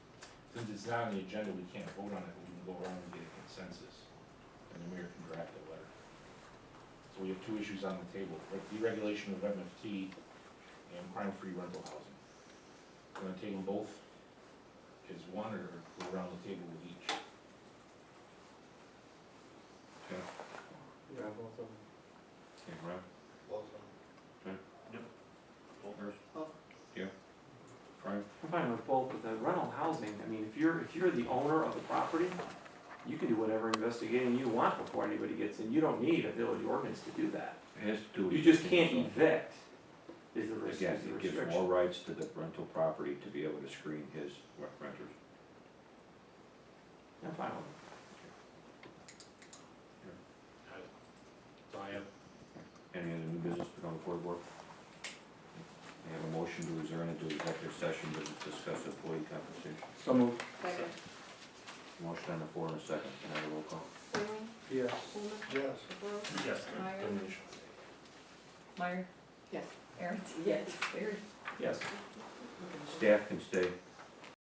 Since it's not on the agenda, we can't vote on it, but we can go around and get a consensus, and the mayor can draft a letter. So we have two issues on the table, re- deregulation of MFT and crime-free rental housing. We're gonna take them both as one, or go around the table with each? Yeah, both of them. Yeah, right. Both of them. Right. I'm fine with both, but the rental housing, I mean, if you're, if you're the owner of the property, you can do whatever investigating you want before anybody gets in, you don't need a village ordinance to do that. It has to do. You just with- can't evict, is the res- Again, is the it gives more restriction. rights to the rental property to be able to screen his renters. I'm fine with So I have. Any other new business put on the board board? May I have a motion to adjourn into executive session to discuss employee compensation. it. So moved. Second. Motion on the floor in a second, can I have a roll call? Waring, Yes. Coleman, Yes. DeBoer, Yes. Meyer, Meyer? Yes. Aaron? Yes. Barry? Yes. Staff can stay.